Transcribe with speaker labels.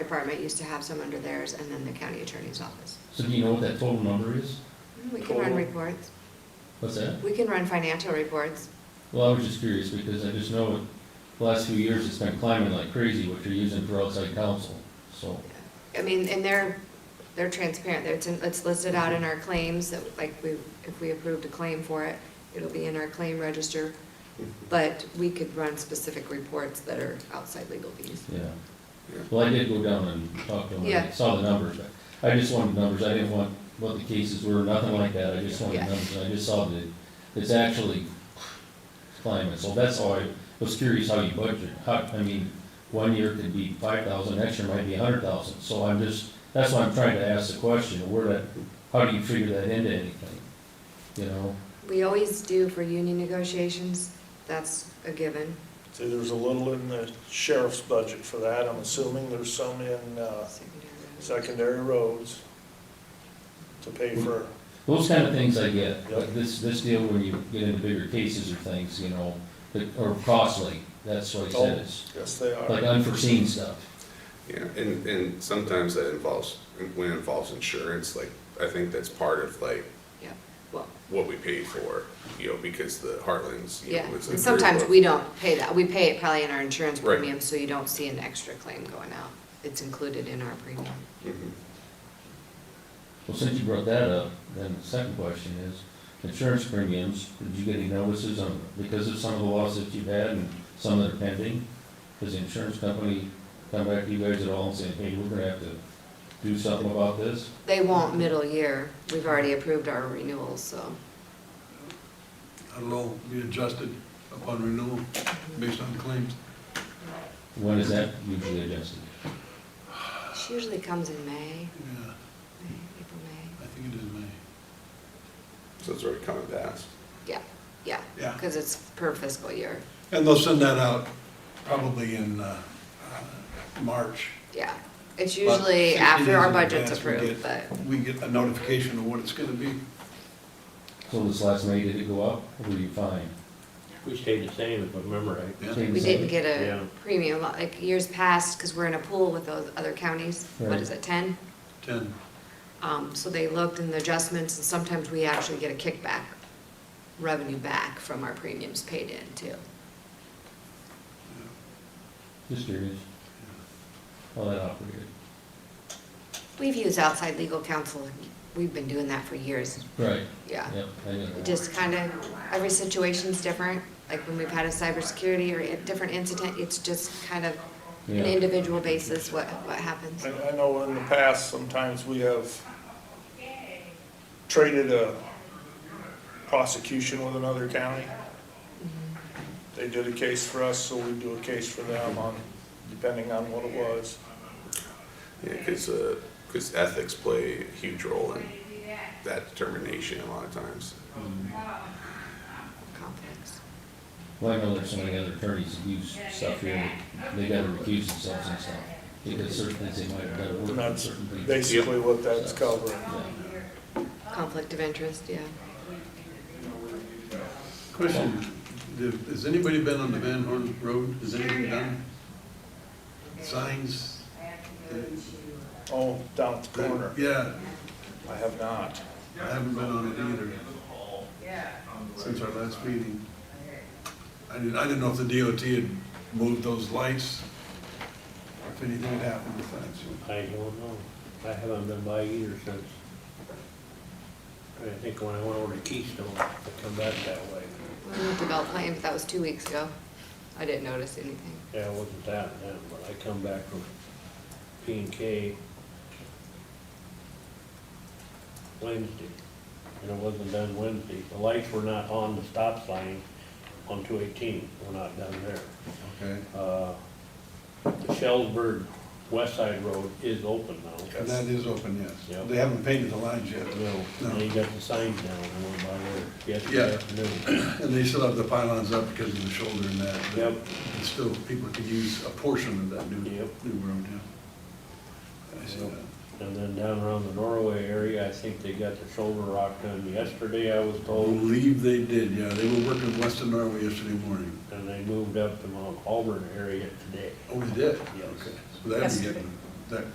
Speaker 1: department used to have some under theirs, and then the county attorney's office.
Speaker 2: So do you know what that total number is?
Speaker 1: We can run
Speaker 3: Total.
Speaker 1: reports,
Speaker 2: What's that?
Speaker 1: we can run financial reports.
Speaker 2: Well, I was just curious because I just know the last few years it's been climbing like crazy, what you're using for outside counsel, so.
Speaker 1: I mean, and they're, they're transparent, it's, in- it's listed out in our claims, that, like, we, if we approved a claim for it, it'll be in our claim register, but we could run specific reports that are outside legal fees.
Speaker 2: Yeah. Well, I did go down and talk to them, I
Speaker 1: Yeah.
Speaker 2: saw the numbers, but I just wanted numbers, I didn't want what the cases were, nothing like that, I just wanted
Speaker 1: Yeah.
Speaker 2: numbers, I just saw that it's actually climbing, so that's all I was curious how you budget, how, I mean, one year could be five thousand, next year might be a hundred thousand, so I'm just, that's why I'm trying to ask the question, where that, how do you figure that into anything? You know,
Speaker 1: We always do for union negotiations, that's a given,
Speaker 3: See, there's a little in the sheriff's budget for that, I'm assuming there's some in uh,
Speaker 1: secondary.
Speaker 3: secondary roads to pay for,
Speaker 2: those kind of things I get, but this, this deal when you get into bigger cases or things, you know, that are costly, that's what it
Speaker 3: Oh.
Speaker 2: says.
Speaker 3: yes, they
Speaker 2: like uh,
Speaker 3: are.
Speaker 2: unforeseen stuff.
Speaker 4: Yeah, and, and sometimes that involves, when it involves insurance, like, I think that's part of like
Speaker 1: Yeah, well,
Speaker 4: what we pay for, you know, because the Heartland's, you know,
Speaker 1: yeah,
Speaker 4: it's
Speaker 1: and
Speaker 4: like.
Speaker 1: sometimes we don't pay that, we pay it probably in our insurance
Speaker 4: Right.
Speaker 1: premium, so you don't see an extra claim going out. It's included in our premium.
Speaker 4: Mhm.
Speaker 2: Well, since you brought that up, then the second question is, insurance premiums, did you get any notices on, because of some of the lawsuits you've had and some that are pending? Has the insurance company come back to you guys at all and say, hey, we're gonna have to do something about this?
Speaker 1: They won't middle year, we've already approved our renewals, so.
Speaker 5: I don't know, be adjusted upon renewal based on claims.
Speaker 2: When is that usually adjusted?
Speaker 1: She usually comes in May,
Speaker 5: Yeah,
Speaker 1: May, April, May.
Speaker 5: I think it is May.
Speaker 4: So it's already coming fast.
Speaker 1: Yeah, yeah,
Speaker 5: Yeah,
Speaker 1: because it's per fiscal year,
Speaker 5: and they'll send that out probably in uh, uh, March.
Speaker 1: yeah. It's
Speaker 5: But
Speaker 1: usually
Speaker 5: 60
Speaker 1: after our
Speaker 5: days in
Speaker 1: budget's
Speaker 5: advance, we
Speaker 1: approved, but
Speaker 5: get- We get a notification of what it's gonna be.
Speaker 2: So this last May, did it go up, or were you fine?
Speaker 6: We stayed the same, if I remember right.
Speaker 5: Yeah.
Speaker 2: Stayed the
Speaker 1: we didn't
Speaker 2: same?
Speaker 1: get
Speaker 6: Yeah.
Speaker 1: a premium, like years past, because we're in a pool with those other counties. What
Speaker 2: Right.
Speaker 1: is it, ten?
Speaker 5: Ten,
Speaker 1: Um, so they looked in the adjustments, and sometimes we actually get a kickback, revenue back from our premiums paid in too.
Speaker 2: Just curious, how that operated.
Speaker 1: We've used outside legal counsel, we've been doing that for years,
Speaker 2: Right.
Speaker 1: yeah.
Speaker 2: Yep, I get
Speaker 1: It
Speaker 2: it.
Speaker 1: just kind of, every situation's different, like when we've had a cybersecurity or a different incident, it's just kind of
Speaker 2: Yeah.
Speaker 1: an individual basis, what, what happens.
Speaker 3: I I know in the past, sometimes we have traded a prosecution with another county. They did a case for us, so we do a case for them on, depending on what it was.
Speaker 4: Yeah, because, because ethics play a huge role in that determination a lot of times.
Speaker 1: Conflicts.
Speaker 2: Well, I know there's so many other attorneys that use stuff here, that they gotta recuse themselves and stuff, because certain things they might have gotta
Speaker 3: And
Speaker 2: work on
Speaker 3: that's
Speaker 2: certain people.
Speaker 3: basically what that's covering.
Speaker 1: Conflict of interest, yeah.
Speaker 5: question, did- has anybody been on the Van Horn Road? Has anything done? Signs?
Speaker 3: Oh, down at the corner.
Speaker 5: Yeah,
Speaker 3: I have not.
Speaker 5: I haven't been on it either. Since our last meeting. I didn't, I didn't know if the DOT had moved those lights, or if anything had happened with that, so.
Speaker 6: I don't know. I haven't been by either since. I think when I went over to Keystone, I come back that way.
Speaker 1: We went to Bell Plain, but that was two weeks ago. I didn't notice anything.
Speaker 6: Yeah, it wasn't that then, but I come back from P and K Wednesday, and it wasn't done Wednesday. The lights were not on the stop sign on two eighteen, were not done there.
Speaker 5: Okay.
Speaker 6: Uh, The Shellsburg West Side Road is open now.
Speaker 5: And that is open, yes.
Speaker 6: Yep.
Speaker 5: They haven't painted the lines yet,
Speaker 6: No, they got the signs down, I went by there yesterday
Speaker 5: Yeah.
Speaker 6: afternoon.
Speaker 5: and they still have the pylons up because of the shoulder and that. but
Speaker 6: Yep.
Speaker 5: it's Still, people could use a portion of that new,
Speaker 6: Yep.
Speaker 5: new road, yeah. I see
Speaker 6: Yep.
Speaker 5: that.
Speaker 6: And then down around the Norway area, I think they got the shoulder rock done yesterday, I was told.
Speaker 5: Believe they did, yeah, they were working western Norway yesterday morning.
Speaker 6: And they moved up to Mount Auburn area today.
Speaker 5: Oh, they did?
Speaker 6: Yes.
Speaker 5: Okay. So that'd be getting